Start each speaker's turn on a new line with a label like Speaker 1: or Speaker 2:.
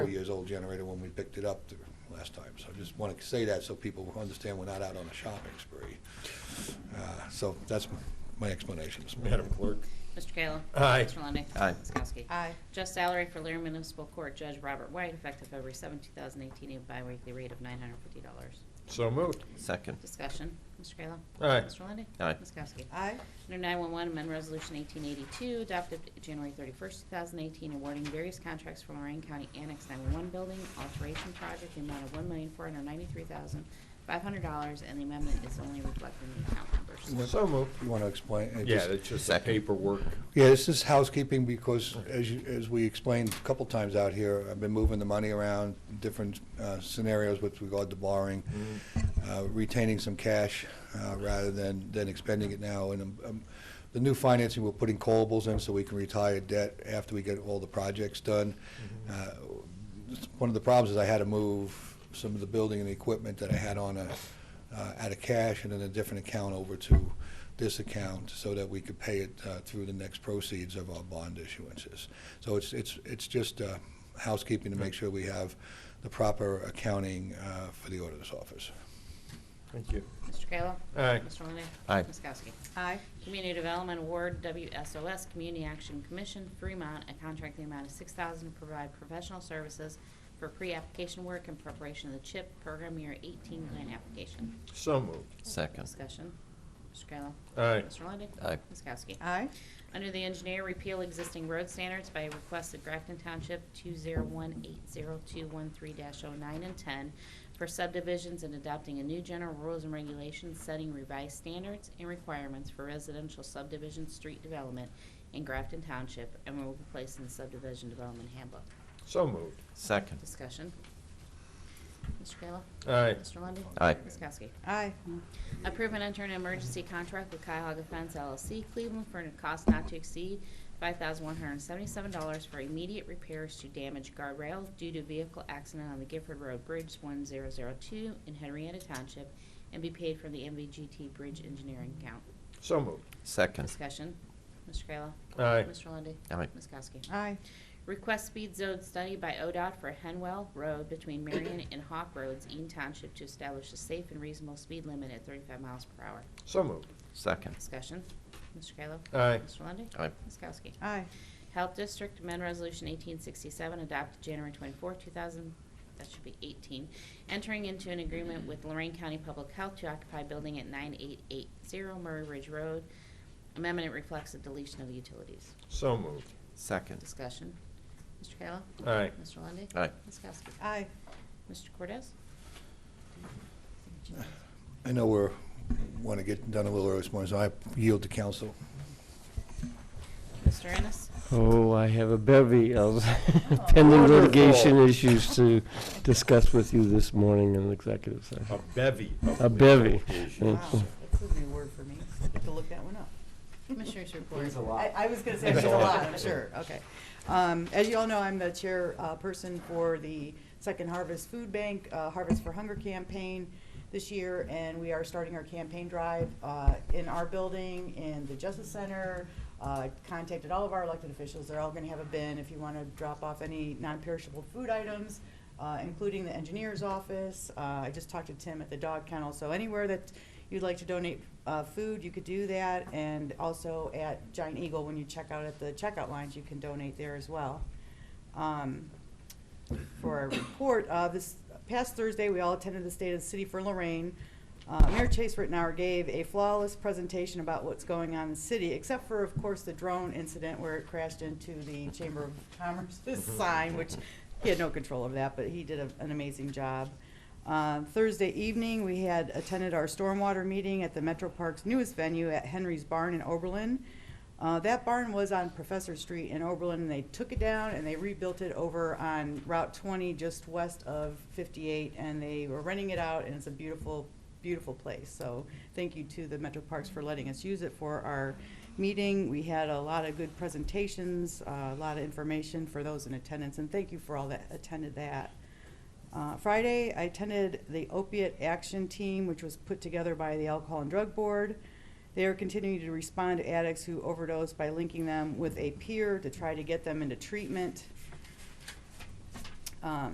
Speaker 1: three years old generator when we picked it up the last time. So I just want to say that so people understand we're not out on a shopping spree. Uh, So that's my explanation this morning.
Speaker 2: Madam Clerk.
Speaker 3: Mr. Kayla.
Speaker 2: Aye.
Speaker 3: Mr. Lundey.
Speaker 4: Aye.
Speaker 3: Ms. Kowski.
Speaker 5: Aye.
Speaker 3: Just salary for Laramie Municipal Court Judge Robert White, effective February 7, 2018, at a biweekly rate of $950.
Speaker 2: So moved.
Speaker 4: Second.
Speaker 3: Discussion, Mr. Kayla.
Speaker 2: Aye.
Speaker 3: Mr. Lundey.
Speaker 4: Aye.
Speaker 3: Ms. Kowski.
Speaker 5: Aye.
Speaker 3: Under 911, amend Resolution 1882, adopted January 31st, 2018, awarding various contracts for Lorraine County Annex 911 Building Alteration Project, the amount of $1,493,500, and the amendment is only reflected in the account numbers.
Speaker 2: So moved.
Speaker 1: You want to explain? it
Speaker 2: Yeah,
Speaker 1: just-
Speaker 2: it's just the
Speaker 4: Second.
Speaker 2: paperwork.
Speaker 1: Yeah, this is housekeeping because as you, as we explained a couple times out here, I've been moving the money around, different uh, scenarios with regard to borrowing, uh, retaining some cash uh, rather than, than expending it now. And um, um, the new financing, we're putting callables in so we can retire debt after we get all the projects done. Uh, One of the problems is I had to move some of the building and the equipment that I had on a, uh, out of cash and in a different account over to this account so that we could pay it uh, through the next proceeds of our bond issuances. So it's, it's, it's just uh, housekeeping to make sure we have the proper accounting uh, for the auditor's office.
Speaker 2: Thank you.
Speaker 3: Mr. Kayla.
Speaker 2: Aye.
Speaker 3: Mr. Lundey.
Speaker 4: Aye.
Speaker 3: Ms. Kowski.
Speaker 5: Aye.
Speaker 3: Community Development Award, WSOS, Community Action Commission, Fremont, a contract in the amount of six thousand to provide professional services for pre-application work and preparation of the CHIP program year eighteen grant application.
Speaker 2: So moved.
Speaker 4: Second.
Speaker 3: Discussion. Mr. Kayla.
Speaker 2: Aye.
Speaker 3: Mr. Lundey.
Speaker 4: Aye.
Speaker 3: Ms. Kowski.
Speaker 5: Aye.
Speaker 3: Under the engineer, repeal existing road standards by request of Grafton Township 2018023-09 and 10 for subdivisions and adopting a new general rules and regulations setting revised standards and requirements for residential subdivision street development in Grafton Township and will be placed in the subdivision development handbook.
Speaker 2: So moved.
Speaker 4: Second.
Speaker 3: Discussion. Mr. Kayla?
Speaker 2: Aye.
Speaker 3: Mr. Lundey?
Speaker 4: Aye.
Speaker 3: Ms. Kowski?
Speaker 5: Aye.
Speaker 3: Approve and enter an emergency contract with Cuyahoga Fence LLC Cleveland for a cost not to exceed $5,177 for immediate repairs to damaged guardrails due to vehicle accident on the Gifford Road Bridge 1002 in Henrietta Township and be paid from the MVGT Bridge Engineering account.
Speaker 2: So moved.
Speaker 4: Second.
Speaker 3: Discussion. Mr. Kayla.
Speaker 2: Aye.
Speaker 3: Mr. Lundey.
Speaker 4: Aye.
Speaker 3: Ms. Kowski.
Speaker 5: Aye.
Speaker 3: Request speed zone study by ODOT for Henwell Road between Marion and Hawk Roads, Eaton Township, to establish a safe and reasonable speed limit at 35 miles per hour.
Speaker 2: So moved.
Speaker 4: Second.
Speaker 3: Discussion. Mr. Kayla?
Speaker 2: Aye.
Speaker 3: Mr. Lundey?
Speaker 4: Aye.
Speaker 3: Ms. Kowski?
Speaker 5: Aye.
Speaker 3: Health District Amendment Resolution 1867, adopted January 24, 2000, that should be 18, entering into an agreement with Lorraine County Public Health to occupy building at 9880 Murray Ridge Road. Amendment reflects the deletion of utilities.
Speaker 2: So moved.
Speaker 4: Second.
Speaker 3: Discussion. Mr. Kayla?
Speaker 2: Aye.
Speaker 3: Mr. Lundey?
Speaker 4: Aye.
Speaker 3: Ms. Kowski?
Speaker 5: Aye.
Speaker 3: Mr. Cordez?
Speaker 1: I know we're, want to get done a little early this morning, so I yield to council.
Speaker 3: Mr. Ennis?
Speaker 6: Oh, I have a bevy of pending litigation
Speaker 2: Wonderful.
Speaker 6: issues to discuss with you this morning in executive
Speaker 2: A
Speaker 6: session.
Speaker 2: bevy. of
Speaker 6: A bevy.
Speaker 2: litigation.
Speaker 6: Thank
Speaker 5: Wow,
Speaker 6: you.
Speaker 5: that's a new word for me. Have to look that one up.
Speaker 3: Commissioners report.
Speaker 5: I, I was gonna say there's a lot, I'm sure, okay. Um, as you all know, I'm the chair, uh, person for the Second Harvest Food Bank, uh, Harvest for Hunger campaign this year, and we are starting our campaign drive, uh, in our building, in the Justice Center. Uh, contacted all of our elected officials, they're all gonna have a bin if you wanna drop off any non-perishable food items, uh, including the engineer's office. Uh, I just talked to Tim at the dog kennel, so anywhere that you'd like to donate uh, food, you could do that. And also at Giant Eagle, when you check out at the checkout lines, you can donate there as well. Um, for our report, uh, this past Thursday, we all attended the State of the City for Lorraine. Uh, Mayor Chase Rittenhour gave a flawless presentation about what's going on in the city, except for, of course, the drone incident where it crashed into the Chamber of Commerce's sign, which he had no control over that, but he did a- an amazing job. Uh, Thursday evening, we had attended our stormwater meeting at the Metro Park's newest venue at Henry's Barn in Oberlin. Uh, that barn was on Professor Street in Oberlin, and they took it down and they rebuilt it over on Route 20, just west of 58, and they were renting it out, and it's a beautiful, beautiful place. So thank you to the Metro Parks for letting us use it for our meeting. We had a lot of good presentations, uh, a lot of information for those in attendance, and thank you for all that attended that. Uh, Friday, I attended the opiate action team, which was put together by the Alcohol and Drug Board. They are continuing to respond to addicts who overdose by linking them with a peer to try to get them into treatment. Um,